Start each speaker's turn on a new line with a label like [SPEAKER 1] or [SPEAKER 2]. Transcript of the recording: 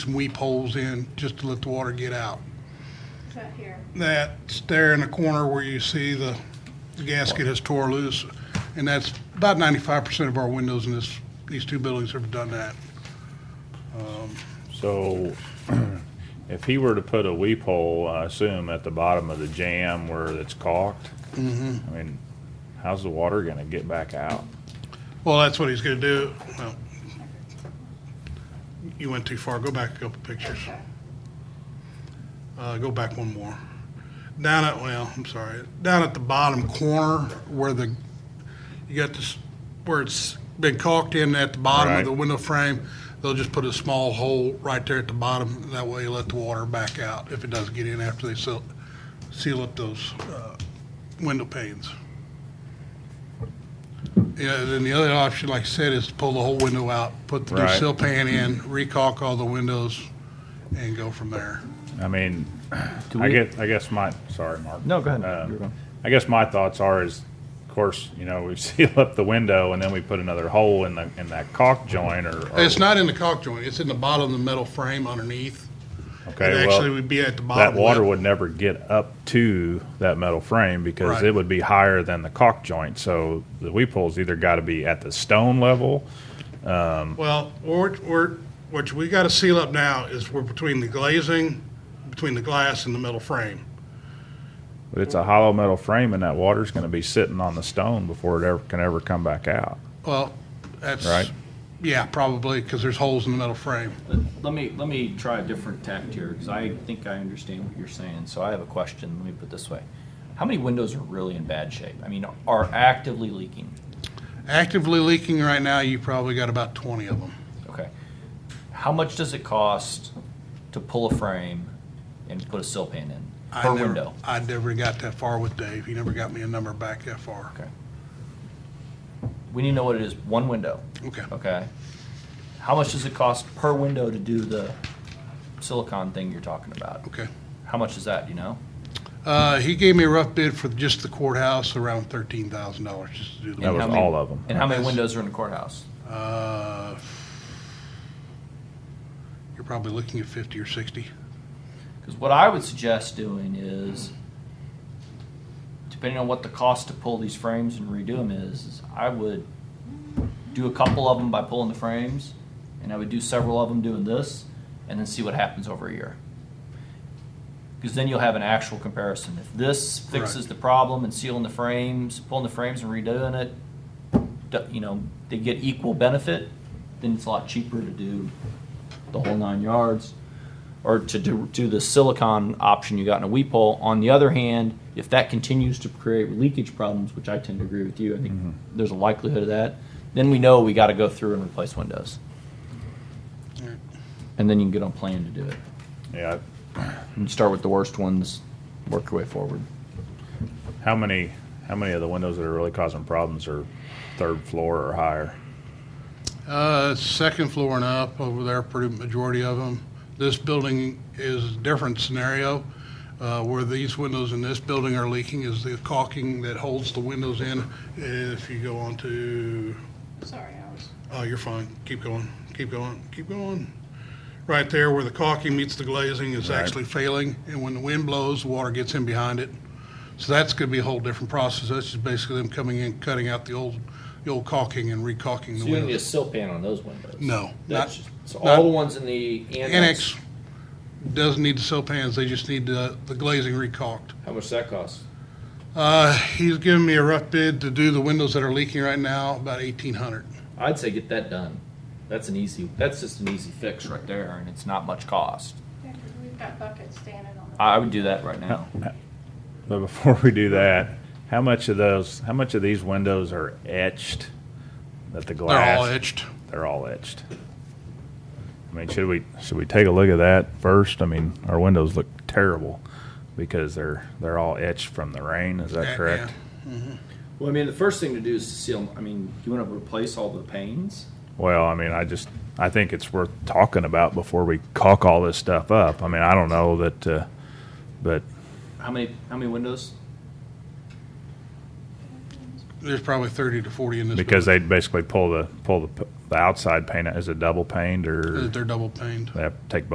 [SPEAKER 1] some weep holes in just to let the water get out.
[SPEAKER 2] It's up here.
[SPEAKER 1] That's there in the corner where you see the, the gasket has tore loose, and that's about ninety-five percent of our windows in this, these two buildings have done that.
[SPEAKER 3] So if he were to put a weep hole, I assume at the bottom of the jam where it's caulked,
[SPEAKER 1] Mm-hmm.
[SPEAKER 3] I mean, how's the water gonna get back out?
[SPEAKER 1] Well, that's what he's gonna do. Well, you went too far. Go back a couple pictures. Uh, go back one more. Down at, well, I'm sorry, down at the bottom corner where the, you got this, where it's been caulked in at the bottom of
[SPEAKER 3] Right.
[SPEAKER 1] the window frame, they'll just put a small hole right there at the bottom. That way you let the water back out if it does get in after they seal, seal up those, uh, window panes. Yeah, then the other option, like I said, is to pull the whole window out, put the new
[SPEAKER 3] Right.
[SPEAKER 1] sill pan in, recaulk all the windows, and go from there.
[SPEAKER 3] I mean,
[SPEAKER 4] Do
[SPEAKER 3] I
[SPEAKER 4] we-
[SPEAKER 3] guess, I guess my, sorry, Mark.
[SPEAKER 4] No, go ahead.
[SPEAKER 3] Uh,
[SPEAKER 4] You're going.
[SPEAKER 3] I guess my thoughts are is, of course, you know, we seal up the window and then we put another hole in the, in that caulk joint or. or-
[SPEAKER 1] It's not in the caulk joint, it's in the bottom of the metal frame underneath. It
[SPEAKER 3] Okay,
[SPEAKER 1] actually
[SPEAKER 3] well,
[SPEAKER 1] would be at the bottom.
[SPEAKER 3] that water
[SPEAKER 1] lip.
[SPEAKER 3] would never get up to that metal frame because
[SPEAKER 1] Right.
[SPEAKER 3] it would be higher than the caulk joint. So the weep hole's either gotta be at the stone level
[SPEAKER 1] Well, or, or, what we gotta seal up now is we're between the glazing, between the glass and the metal frame.
[SPEAKER 3] But it's a hollow metal frame, and that water's going to be sitting on the stone before it ever can ever come back out.
[SPEAKER 1] Well, that's.
[SPEAKER 3] Right.
[SPEAKER 1] Yeah, probably, because there's holes in the metal frame.
[SPEAKER 5] Let- Let me, let me try a different tact here, because I think I understand what you're saying, so I have a question, let me put it this way. How many windows are really in bad shape? I mean, are actively leaking?
[SPEAKER 1] Actively leaking right now, you probably got about twenty of them.
[SPEAKER 5] Okay. How much does it cost to pull a frame and put a sill pan in,
[SPEAKER 1] I
[SPEAKER 5] per
[SPEAKER 1] never-
[SPEAKER 5] window?
[SPEAKER 1] I never got that far with Dave. He never got me a number back that far.
[SPEAKER 5] Okay. We need to know what it is, one window,
[SPEAKER 1] Okay.
[SPEAKER 5] okay? How much does it cost per window to do the silicon thing you're talking about?
[SPEAKER 1] Okay.
[SPEAKER 5] How much is that, do you know?
[SPEAKER 1] Uh, he gave me a rough bid for just the courthouse, around thirteen thousand dollars just to do
[SPEAKER 3] That
[SPEAKER 5] And
[SPEAKER 3] was
[SPEAKER 5] how
[SPEAKER 1] the.
[SPEAKER 5] many-
[SPEAKER 3] all of them.
[SPEAKER 5] And how many
[SPEAKER 1] Yes.
[SPEAKER 5] windows are in the courthouse?
[SPEAKER 1] Uh, You're probably looking at fifty or sixty.
[SPEAKER 5] Because what I would suggest doing is, depending on what the cost to pull these frames and redo them is, is I would do a couple of them by pulling the frames, and I would do several of them doing this, and then see what happens over a year. Because then you'll have an actual comparison. If this fixes
[SPEAKER 1] Correct.
[SPEAKER 5] the problem and sealing the frames, pulling the frames and redoing it, d- you know, they get equal benefit, then it's a lot cheaper to do the whole nine yards or to do, do the silicon option you got in a weep hole. On the other hand, if that continues to create leakage problems, which I tend to agree with you, I think there's a likelihood of that, then we know we got to go through and replace windows. And then you can get on plan to do it.
[SPEAKER 3] Yeah.
[SPEAKER 5] And start with the worst ones, work your way forward.
[SPEAKER 3] How many? How many of the windows that are really causing problems are third floor or higher?
[SPEAKER 1] Uh, second floor and up over there, pretty majority of them. This building is a different scenario. Uh, where these windows in this building are leaking is the caulking that holds the windows in. If you go on to
[SPEAKER 2] Sorry, I was.
[SPEAKER 1] Oh, you're fine. Keep going, keep going, keep going. Right there where the caulking meets the glazing is
[SPEAKER 3] Right.
[SPEAKER 1] actually failing, and when the wind blows, the water gets in behind it. So that's gonna be a whole different process. That's just basically them coming in, cutting out the old, the old caulking and recaulking the windows.
[SPEAKER 5] sill pan on those windows?
[SPEAKER 1] No, not,
[SPEAKER 5] so
[SPEAKER 1] all not- the
[SPEAKER 5] ones in the
[SPEAKER 1] annex doesn't need the sill pans, they just need the, the glazing recaulked.
[SPEAKER 5] How much that costs?
[SPEAKER 1] Uh, he's giving me a rough bid to do the windows that are leaking right now, about eighteen hundred.
[SPEAKER 5] I'd say get that done. That's an easy. That's just an easy fix right there, and it's not much cost.
[SPEAKER 2] yeah, 'cause We've got buckets standing on the.
[SPEAKER 5] I would do that right now.
[SPEAKER 3] But before we do that, how much of those? How much of these windows are etched? That the
[SPEAKER 1] They're
[SPEAKER 3] glass.
[SPEAKER 1] all etched.
[SPEAKER 3] They're all etched. I mean, should we should we take a look at that first? I mean, our windows look terrible because they're they're all etched from the rain. Is
[SPEAKER 1] Yeah,
[SPEAKER 3] that correct?
[SPEAKER 1] yeah.
[SPEAKER 5] Well, I mean, the first thing to do is to seal. I mean, you want to replace all the panes.
[SPEAKER 3] Well, I mean, I just I think it's worth talking about before we caulk all this stuff up. I mean, I don't know that, uh, but
[SPEAKER 5] How many? How many windows?
[SPEAKER 1] There's probably thirty to forty in this.
[SPEAKER 3] because they'd basically pull the pull the, the outside paint out. Is it double paint
[SPEAKER 1] building.
[SPEAKER 3] or
[SPEAKER 1] They're double paned.
[SPEAKER 3] they have to take both